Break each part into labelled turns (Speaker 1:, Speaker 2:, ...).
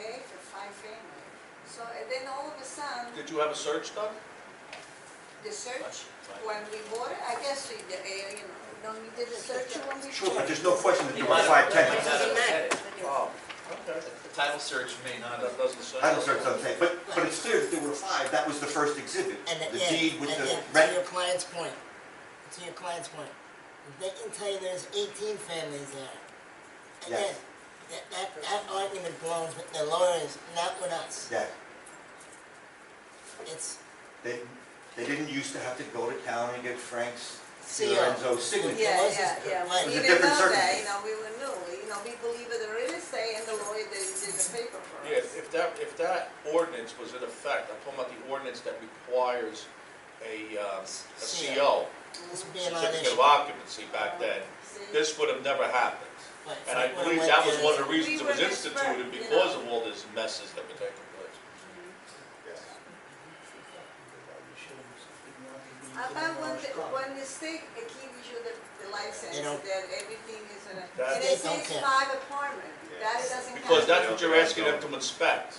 Speaker 1: my family. So, and then all of a sudden,
Speaker 2: Did you have a search done?
Speaker 1: the search,
Speaker 2: Right.
Speaker 1: when we bought it, I guess, we did, eh, you know, when we did the search when we.
Speaker 3: Sure, but
Speaker 1: bought it.
Speaker 3: there's no question that
Speaker 4: He
Speaker 3: you
Speaker 4: might
Speaker 3: were
Speaker 4: have-
Speaker 3: five
Speaker 4: might not
Speaker 3: ten.
Speaker 4: have said it.
Speaker 2: Oh, okay.
Speaker 4: The title search may not have.
Speaker 2: That doesn't say.
Speaker 3: I don't sort of say, but, but it's clear that there were five, that was the first exhibit.
Speaker 5: And
Speaker 3: The
Speaker 5: yeah,
Speaker 3: deed with
Speaker 5: and
Speaker 3: the
Speaker 5: yeah, To your
Speaker 3: rent,
Speaker 5: client's point, to your client's point, they can tell you there's eighteen families there. And
Speaker 3: Yes.
Speaker 5: That, that, that argument belongs with the lawyers, not with us.
Speaker 3: yeah,
Speaker 5: It's
Speaker 3: they, they didn't used to have to go to town and get Frank's,
Speaker 5: CO.
Speaker 3: Lorenzo's signature.
Speaker 1: Yeah,
Speaker 5: was
Speaker 1: yeah,
Speaker 5: just-
Speaker 1: yeah, we
Speaker 5: Right. It was
Speaker 1: didn't
Speaker 3: a different
Speaker 1: know that,
Speaker 3: circumstance.
Speaker 1: you know, we were new, you know, we believe in the real estate and the lawyer that did the paper for
Speaker 2: Yeah,
Speaker 1: us.
Speaker 2: if that, if that ordinance was in effect, I'm talking about the ordinance that requires a, um, a CO,
Speaker 5: this would be a
Speaker 2: certificate
Speaker 5: non-issue.
Speaker 2: of occupancy back then,
Speaker 1: See?
Speaker 2: this would have never happened.
Speaker 5: Right,
Speaker 2: And I
Speaker 5: Frank would've
Speaker 2: believe
Speaker 5: let
Speaker 2: that was
Speaker 5: the-
Speaker 2: one of the reasons
Speaker 1: We
Speaker 2: it was
Speaker 1: were just
Speaker 2: instituted
Speaker 1: burnt, you
Speaker 2: because
Speaker 1: know.
Speaker 2: of all this messes that were taking place.
Speaker 1: How About when, the- when the state uh, gives you the, the license,
Speaker 5: They don't-
Speaker 1: that everything is in a,
Speaker 2: That-
Speaker 1: and
Speaker 5: They
Speaker 1: it
Speaker 5: don't
Speaker 1: says
Speaker 5: care.
Speaker 1: five apartment, that doesn't count.
Speaker 2: Because that's what you're asking them to inspect.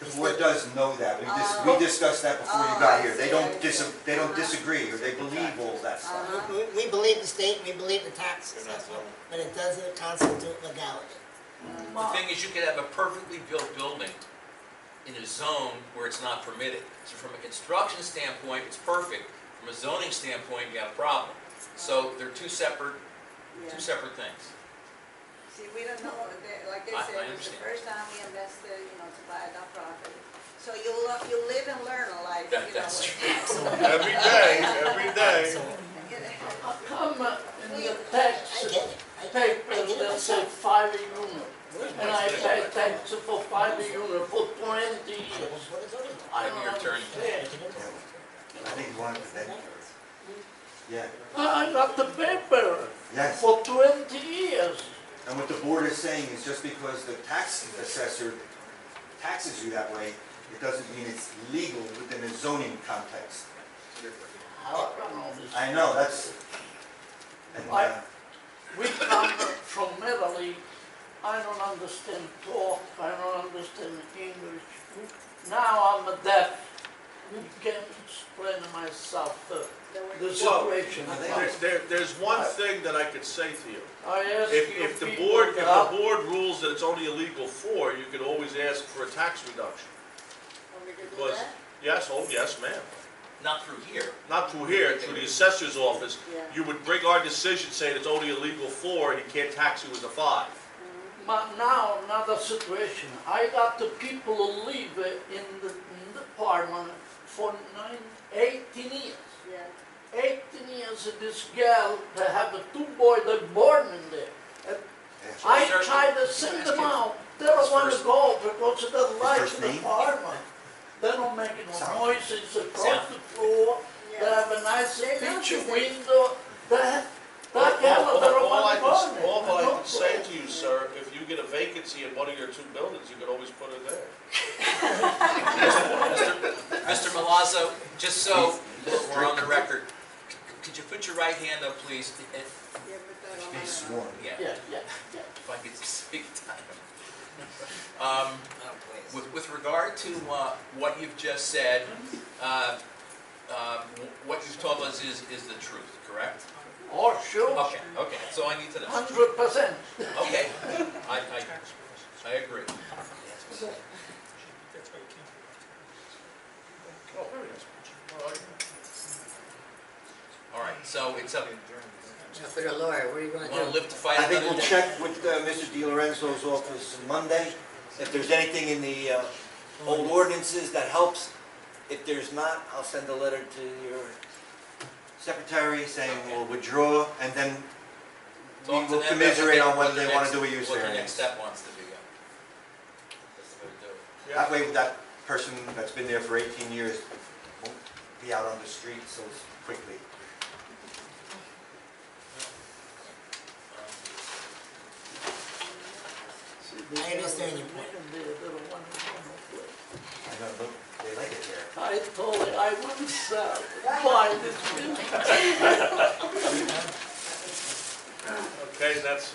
Speaker 3: The board does know that, we dis,
Speaker 1: Oh.
Speaker 3: we discussed that before you
Speaker 1: Oh, I
Speaker 3: got here,
Speaker 1: see,
Speaker 3: they
Speaker 1: I
Speaker 3: don't
Speaker 1: see.
Speaker 3: dis, they don't
Speaker 1: Uh-huh.
Speaker 3: disagree, or they believe all that stuff.
Speaker 1: Uh-huh.
Speaker 5: We, we believe the state, we believe the tax
Speaker 2: They're not
Speaker 5: assessment,
Speaker 2: wrong.
Speaker 5: but it doesn't constitute legality.
Speaker 4: The thing is, you could have a perfectly built building in a zone where it's not permitted. So from a construction standpoint, it's perfect. From a zoning standpoint, you have a problem. So they're two separate,
Speaker 1: Yeah.
Speaker 4: two separate things.
Speaker 1: See, we don't know, that- like they
Speaker 4: I-
Speaker 1: said,
Speaker 4: I
Speaker 1: it's the
Speaker 4: understand.
Speaker 1: first time we invested, you know, to buy a property. So you lo you live and learn a life, you know.
Speaker 4: That- that's
Speaker 2: Every day, every day.
Speaker 5: So,
Speaker 6: How come uh, in the
Speaker 5: I
Speaker 6: tax
Speaker 5: get it. I- I
Speaker 6: papers
Speaker 5: get it.
Speaker 6: they say five a unit? And I pay tax for five a unit for twenty years.
Speaker 5: What is it?
Speaker 6: I
Speaker 4: Have your
Speaker 6: don't
Speaker 4: attorney.
Speaker 6: understand.
Speaker 5: Oh.
Speaker 3: I think you wanted to then, yeah,
Speaker 6: I got the paper
Speaker 3: yes.
Speaker 6: for twenty years.
Speaker 3: And what the board is saying is just because the tax assessor taxes you that way, it doesn't mean it's legal within a zoning context.
Speaker 6: How I don't understand.
Speaker 3: I know, that's, and, uh,
Speaker 6: We come from Italy, I don't understand talk, I don't understand English. Now I'm a deaf, can't explain myself uh, the situation.
Speaker 2: There, there- there's one thing that I could say to you.
Speaker 6: I ask you
Speaker 2: If, if the
Speaker 6: people
Speaker 2: board, if
Speaker 6: that-
Speaker 2: the board rules that it's only illegal for, you could always ask for a tax reduction. Because, yes, oh, yes, ma'am.
Speaker 4: Not through here.
Speaker 2: Not through here, through the assessor's office.
Speaker 1: Yeah.
Speaker 2: You would bring our decision saying it's only illegal for and he can't tax you as a five.
Speaker 6: But now another situation. I got the people who live uh, in the, in the apartment for nine, eighteen years.
Speaker 1: Yeah.
Speaker 6: Eighteen years, this girl, they have a two boy, they born in there. And I
Speaker 4: Sir,
Speaker 6: tried to
Speaker 4: can I
Speaker 6: send
Speaker 4: ask
Speaker 6: them
Speaker 4: you-
Speaker 6: out. They don't
Speaker 4: his
Speaker 6: want to
Speaker 4: first-
Speaker 6: go because they don't like
Speaker 3: first
Speaker 6: the
Speaker 3: name?
Speaker 6: apartment. They don't make
Speaker 3: Sound.
Speaker 6: no noises across
Speaker 4: Sound.
Speaker 6: the floor. They have a nice
Speaker 1: They're not
Speaker 6: picture
Speaker 1: the same.
Speaker 6: window. They have,
Speaker 2: All
Speaker 6: that girl, they don't
Speaker 2: all I
Speaker 6: want
Speaker 2: can,
Speaker 6: to go in there.
Speaker 2: all I
Speaker 6: They
Speaker 2: can
Speaker 6: don't
Speaker 2: say
Speaker 6: go.
Speaker 2: to you, sir, if you get a vacancy in one of your two buildings, you could always put it there.
Speaker 4: Mr. Mr. Milazzo, just so we're on the record, c- could you put your right hand up, please? If
Speaker 1: Yeah, but that don't
Speaker 3: be
Speaker 1: matter.
Speaker 3: sworn.
Speaker 4: yeah,
Speaker 6: Yeah, yeah, yeah.
Speaker 4: if I could speak time. Um, With, with regard to uh, what you've just said, uh, uh, wh- what you've told us is, is the truth, correct?
Speaker 6: Oh, sure,
Speaker 4: Okay, okay, so I need to know.
Speaker 6: hundred percent.
Speaker 4: Okay, I, I, I agree.
Speaker 2: Oh, very nice. All right.
Speaker 4: All right, so it's up,
Speaker 5: Now, for the lawyer, what are you gonna
Speaker 4: want to
Speaker 5: do?
Speaker 4: live to fight
Speaker 3: I think
Speaker 4: another
Speaker 3: we'll
Speaker 4: day?
Speaker 3: check with uh, Mr. Di Lorenzo's office Monday, if there's anything in the uh, old ordinances that helps. If there's not, I'll send a letter to your secretary saying we'll withdraw, and then we
Speaker 4: Talk to
Speaker 3: will
Speaker 4: them,
Speaker 3: commiserate on
Speaker 4: what
Speaker 3: whether
Speaker 4: their
Speaker 3: they want
Speaker 4: next-
Speaker 3: to do a use
Speaker 4: What their
Speaker 3: variance.
Speaker 4: next step wants to be. uh, That's the way to do it.
Speaker 3: That way, that person that's been there for 18 years won't be out on the street so quickly.
Speaker 5: I understand your point.
Speaker 3: I know, look, they like it there.
Speaker 6: I told her I wouldn't sell, buy this building.
Speaker 2: Okay, that's,